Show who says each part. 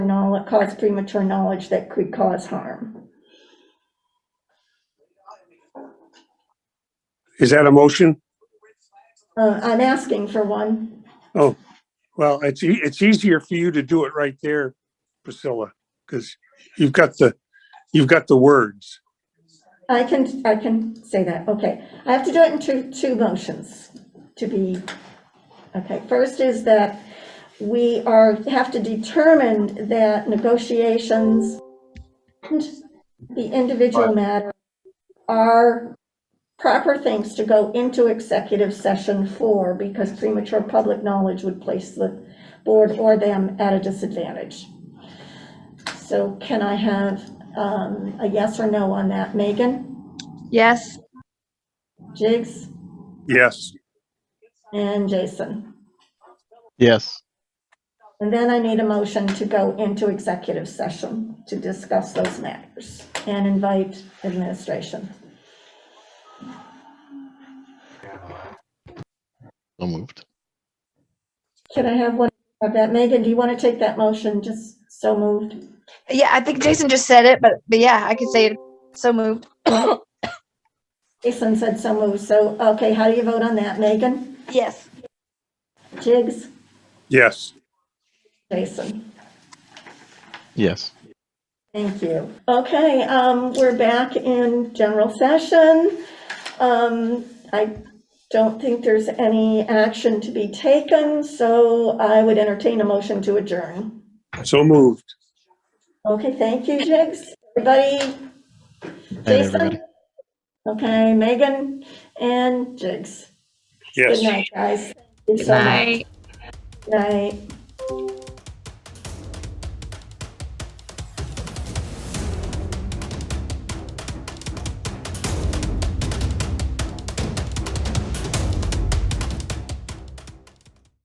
Speaker 1: want to cause premature knowledge that could cause harm.
Speaker 2: Is that a motion?
Speaker 1: Uh, I'm asking for one.
Speaker 2: Oh, well, it's, e- it's easier for you to do it right there, Priscilla, because you've got the, you've got the words.
Speaker 1: I can, I can say that, okay. I have to do it in two, two motions to be, okay. First is that we are, have to determine that negotiations and the individual matter are proper things to go into executive session for, because premature public knowledge would place the board or them at a disadvantage. So can I have um, a yes or no on that? Megan,
Speaker 3: Yes,
Speaker 1: Jigs,
Speaker 2: Yes,
Speaker 1: and Jason?
Speaker 4: Yes,
Speaker 1: And then I need a motion to go into executive session to discuss those matters and invite administration.
Speaker 4: so moved.
Speaker 1: Can I have one of that? Megan, do you want to take that motion? Just so moved.
Speaker 3: yeah, I think Jason just said it, but, but yeah, I could say it, so moved.
Speaker 1: Jason said so moved. So, okay, how do you vote on that? Megan,
Speaker 3: Yes.
Speaker 1: Jigs,
Speaker 2: yes.
Speaker 1: Jason?
Speaker 4: Yes.
Speaker 1: Thank you. Okay, um, we're back in general session. Um, I don't think there's any action to be taken, so I would entertain a motion to adjourn.
Speaker 2: So moved.
Speaker 1: Okay, thank you, Jigs. Everybody?
Speaker 4: Night, everybody.
Speaker 1: Jason? Okay, Megan and Jigs.
Speaker 2: Yes.
Speaker 1: Good night, guys. Good
Speaker 3: Bye.
Speaker 1: Night.